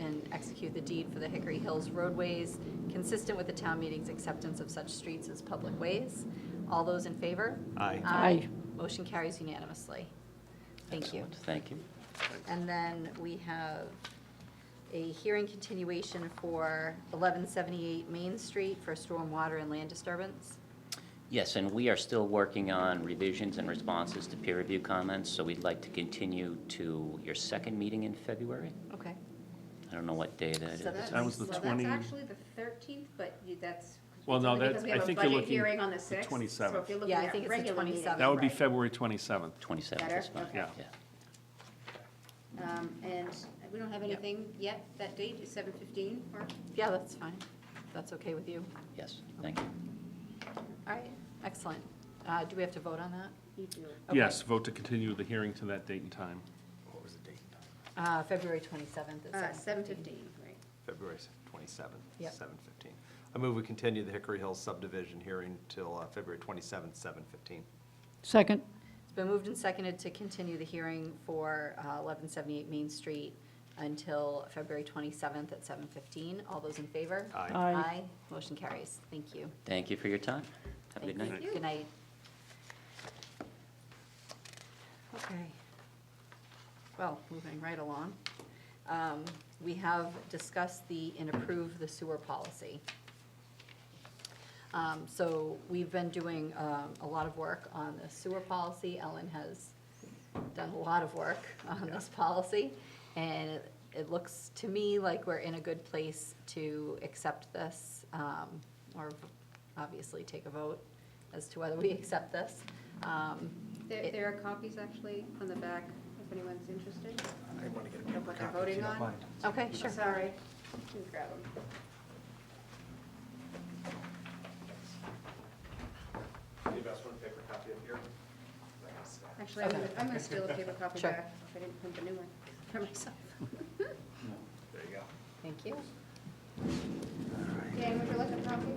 and execute the deed for the Hickory Hills roadways consistent with the town meeting's acceptance of such streets as public ways. All those in favor? Aye. Aye. Motion carries unanimously. Thank you. Excellent. Thank you. And then we have a hearing continuation for 1178 Main Street for stormwater and land disturbance. Yes, and we are still working on revisions and responses to peer review comments, so we'd like to continue to your second meeting in February. Okay. I don't know what day that is. So that's- That was the Well, 20 that's actually the thirteenth, but you, that's. Well, no, only that's- because we I have a think you're budget looking Hearing on the the sixth. 27th. So if you're looking Yeah, I at think it's the regular meeting, 27th. That would be right. February 27th. 27th is Better? fine. Okay. Yeah. Um, and we don't have Yep. anything yet, that date is seven fifteen, or? Yeah, that's fine. That's okay with you. Yes, thank you. All right, excellent. Uh, Do we have to vote on that? You do. Okay. Yes, vote to continue the hearing to that date and time. What was the date? Uh, February 27th Uh, at seven 7:15. fifteen, right. February s- 27th, Yep. 7:15. I move we continue the Hickory Hills subdivision hearing till uh, February 27th, 7:15. Second. It's been moved and seconded to continue the hearing for uh, 1178 Main Street until February 27th at 7:15. All those in favor? Aye. Aye. Motion carries. Thank you. Thank you for your time. Have a Thank good you. night. Good night. Okay. Well, moving right along. Um, We have discussed the, and approved the sewer policy. Um, So we've been doing um, a lot of work on the sewer policy. Ellen has done a lot of work on this policy. And it- it looks to me like we're in a good place to accept this, um, or obviously take a vote as to whether we accept this. Um, There, it- there are copies actually on the back, if anyone's interested. I want to get a paper copy, voting on. Okay, I'm sure. Sorry, can grab them. you guys want a paper copy up here? Actually, I'm gonna, Okay. I'm gonna steal a paper copy Sure. back, if I didn't print the new one for myself. There you go. Thank you. Dan, would you like a copy?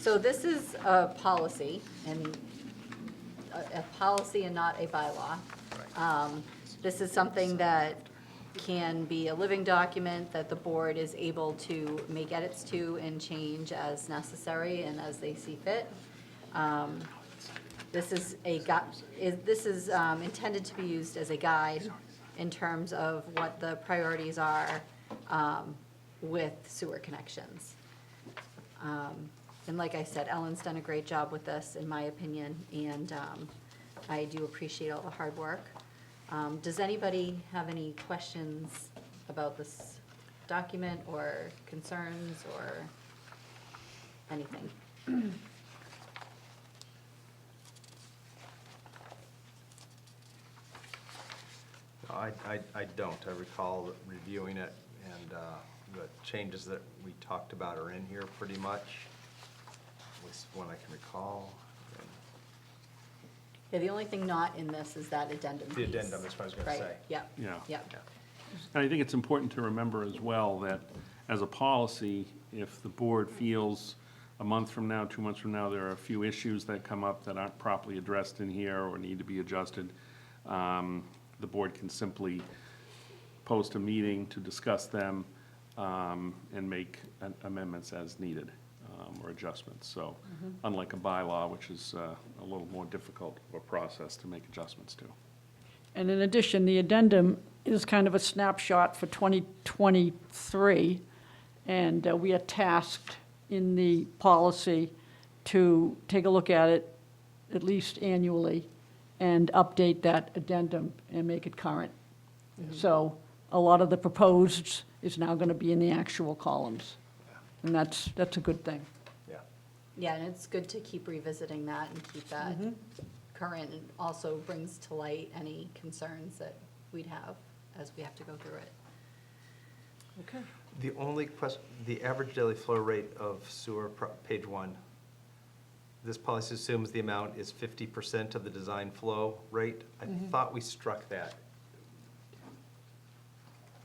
So this is a policy and uh, a, a policy and not a bylaw. Um, This is something that can be a living document that the board is able to make edits to and change as necessary and as they see fit. Um, This is a gu- is, this is um, intended to be used as a guide in terms of what the priorities are, um, with sewer connections. Um, And like I said, Ellen's done a great job with this, in my opinion, and um, I do appreciate all the hard work. Um, Does anybody have any questions about this document or concerns or anything? No, I, I, I don't. I recall reviewing it, and uh, the changes that we talked about are in here pretty much, at least one I can recall. And Yeah, the only thing not in this is that addendum The piece. addendum is what I was gonna Right, say. Yep. Yeah. Yep, yeah. And I think it's important to remember as well that as a policy, if the board feels a month from now, two months from now, there are a few issues that come up that aren't properly addressed in here or need to be adjusted, um, the board can simply post a meeting to discuss them um, and make an- amendments as needed um, or adjustments. So unlike a bylaw, which is uh, a little more difficult of a process to make adjustments to. And in addition, the addendum is kind of a snapshot for 2023, and uh, we are tasked in the policy to take a look at it at least annually and update that addendum and make it current. So a lot of the proposed is now going to be in the actual columns, and that's, that's a good thing. Yeah. yeah, and it's good to keep revisiting that and keep that current. and also brings to light any concerns that we'd have as we have to go through it. Okay. The only question, the average daily flow rate of sewer, pro- page one. This policy assumes the amount is fifty percent of the design flow rate. I Mm-hmm. thought we struck that.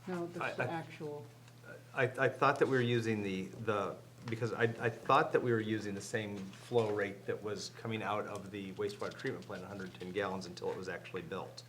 No, I- that's the I- actual. I, I thought that we were using the, the, because I, I thought that we were using the same flow rate that was coming out of the wastewater treatment plant, hundred and ten gallons, until it was actually built.